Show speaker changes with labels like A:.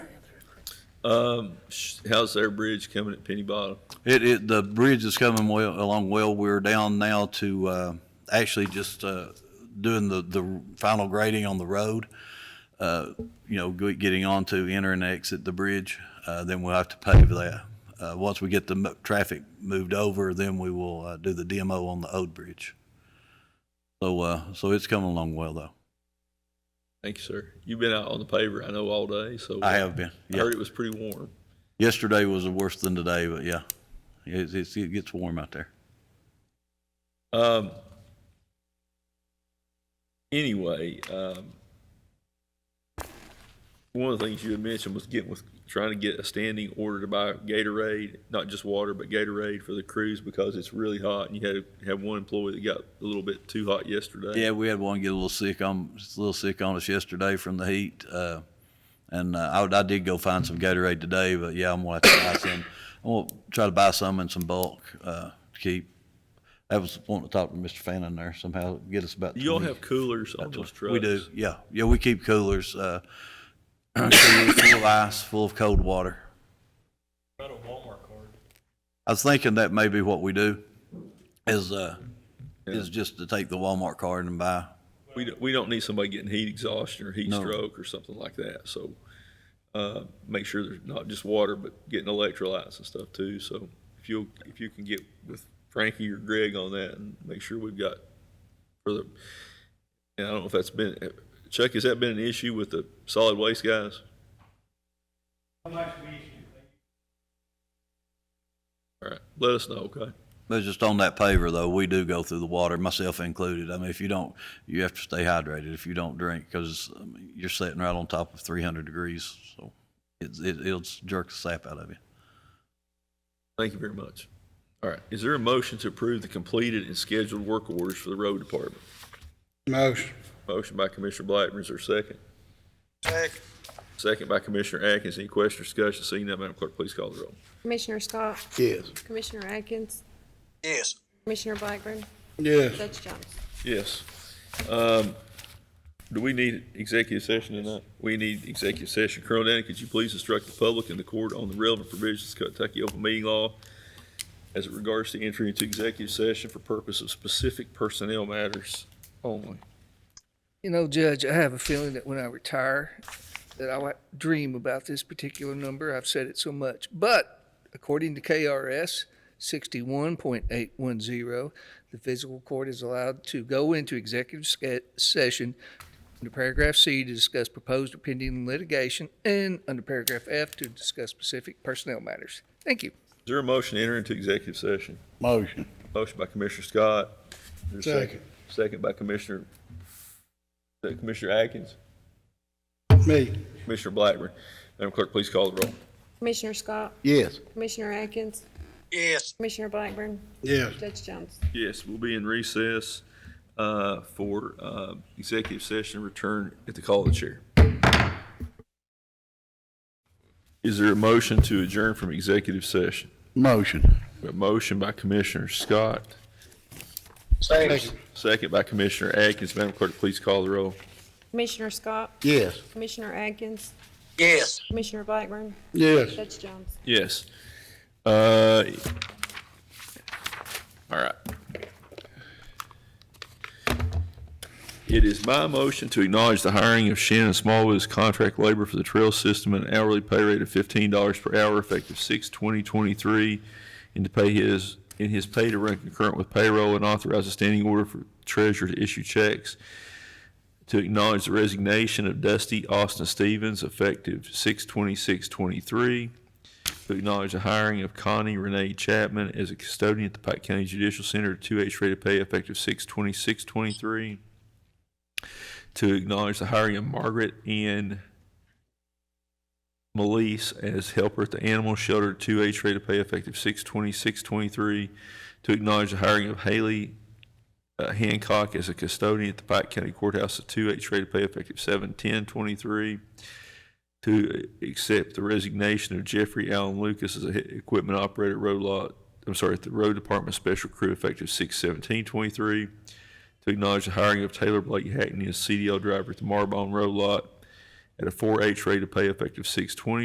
A: Um, sh- how's their bridge coming at Penny Bottom?
B: It, it, the bridge is coming well, along well. We're down now to, uh, actually just, uh, doing the, the final grading on the road. Uh, you know, go- getting onto enter and exit the bridge, uh, then we'll have to pave that. Uh, once we get the mo- traffic moved over, then we will, uh, do the demo on the old bridge. So, uh, so it's coming along well though.
A: Thank you, sir. You've been out on the paver, I know, all day, so.
B: I have been,
A: I
B: yeah.
A: heard it was pretty warm.
B: Yesterday was worse than today, but yeah. It's, it's, it gets warm out there.
A: Um, anyway, um, one of the things you had mentioned was getting with trying to get a standing order to buy Gatorade, not just water, but Gatorade for the crews because it's really hot. And you had had one employee that got a little bit too hot yesterday.
B: Yeah, we had one get a little sick on, just a little sick on us yesterday from the heat. Uh, and uh, I, I did go find some Gatorade today, but yeah, I'm gonna have to buy some. I'm gonna try to buy some in some bulk uh, to keep. I was wanting to talk to Mr. Fannin there somehow, get us about.
A: Do y'all
B: 20.
A: have coolers on those trucks?
B: We do, yeah, yeah. We keep coolers, uh, coolers full of ice, full of cold water.
C: Got a Walmart card.
B: I was thinking that may be what we do, is uh, is just to take the Walmart card and buy
A: We don't, we don't need somebody getting heat exhaustion or heat
B: No.
A: stroke or something like that. So uh, make sure there's not just water, but getting electrolytes and stuff too. So if you if you can get with Frankie or Greg on that and make sure we've got for the and I don't know if that's been Chuck has that been an issue with the solid waste guys?
C: How much we issue?
A: All right, let us know. Okay,
B: But just on that paver though, we do go through the water, myself included. I mean, if you don't, you have to stay hydrated if you don't drink because you're sitting right on top of 300 degrees. So it's, it, it'll jerk the sap out of you.
A: thank you very much. All right, is there a motion to approve the completed and scheduled work orders for the road department?
D: Motion.
A: Motion by Commissioner Blackburn, is there a second?
D: Second.
A: Second by Commissioner Atkins. Any question or discussion? Seeing none, Madam Clerk, please call the roll.
E: Commissioner Scott,
D: Yes.
E: Commissioner Atkins,
D: Yes.
E: Commissioner Blackburn,
D: Yes.
E: Judge Jones.
A: Yes. Um, Do we need executive session tonight? We need executive session. Colonel Danny, could you please instruct the public and the court on the relevant provisions of Kentucky open meeting law as it regards to entry into executive session for purpose of specific personnel matters only?
F: You know, Judge, I have a feeling that when I retire, that I will dream about this particular number. I've said it so much. But according to KRS 61.810, the physical court is allowed to go into executive sca- session under paragraph C to discuss proposed or pending litigation and under paragraph F to discuss specific personnel matters. Thank you.
A: Is there a motion to enter into executive session?
D: Motion.
A: Motion by Commissioner Scott. Is there a
D: Second.
A: Second by Commissioner, Commissioner Atkins,
D: Me.
A: Commissioner Blackburn. Madam Clerk, please call the roll.
E: Commissioner Scott,
D: Yes.
E: Commissioner Atkins,
D: Yes.
E: Commissioner Blackburn,
D: Yes.
E: Judge Jones.
A: Yes, we'll be in recess uh, for uh, executive session, return at the call of the chair. Is there a motion to adjourn from executive session?
D: Motion.
A: A motion by Commissioner Scott,
D: Second.
A: second by Commissioner Atkins. Madam Clerk, please call the roll.
E: Commissioner Scott,
D: Yes.
E: Commissioner Atkins,
D: Yes.
E: Commissioner Blackburn,
D: Yes.
E: Judge Jones.
A: Yes. Uh, All right. It is my motion to acknowledge the hiring of Shannon Smallwood as contract labor for the trail system at an hourly pay rate of fifteen dollars per hour effective six twenty twenty-three and to pay his, in his pay to run concurrent with payroll and authorize a standing order for treasurer to issue checks to acknowledge the resignation of Dusty Austin Stevens effective six twenty-six twenty-three to acknowledge the hiring of Connie Renee Chapman as a custodian at the Pike County Judicial Center, two H rate of pay effective six twenty-six twenty-three. To acknowledge the hiring of Margaret Ann Melise as helper at the animal shelter, two H rate of pay effective six twenty-six twenty-three. To acknowledge the hiring of Haley uh, Hancock as a custodian at the Pike County Courthouse, a two H rate of pay effective seven ten twenty-three to accept the resignation of Jeffrey Allen Lucas as a he- equipment operator, road lot, I'm sorry, at the road department special crew effective six seventeen twenty-three. To acknowledge the hiring of Taylor Blake Hackney as CDL driver at the Marbone Road Lot at a four H rate of pay effective six twenty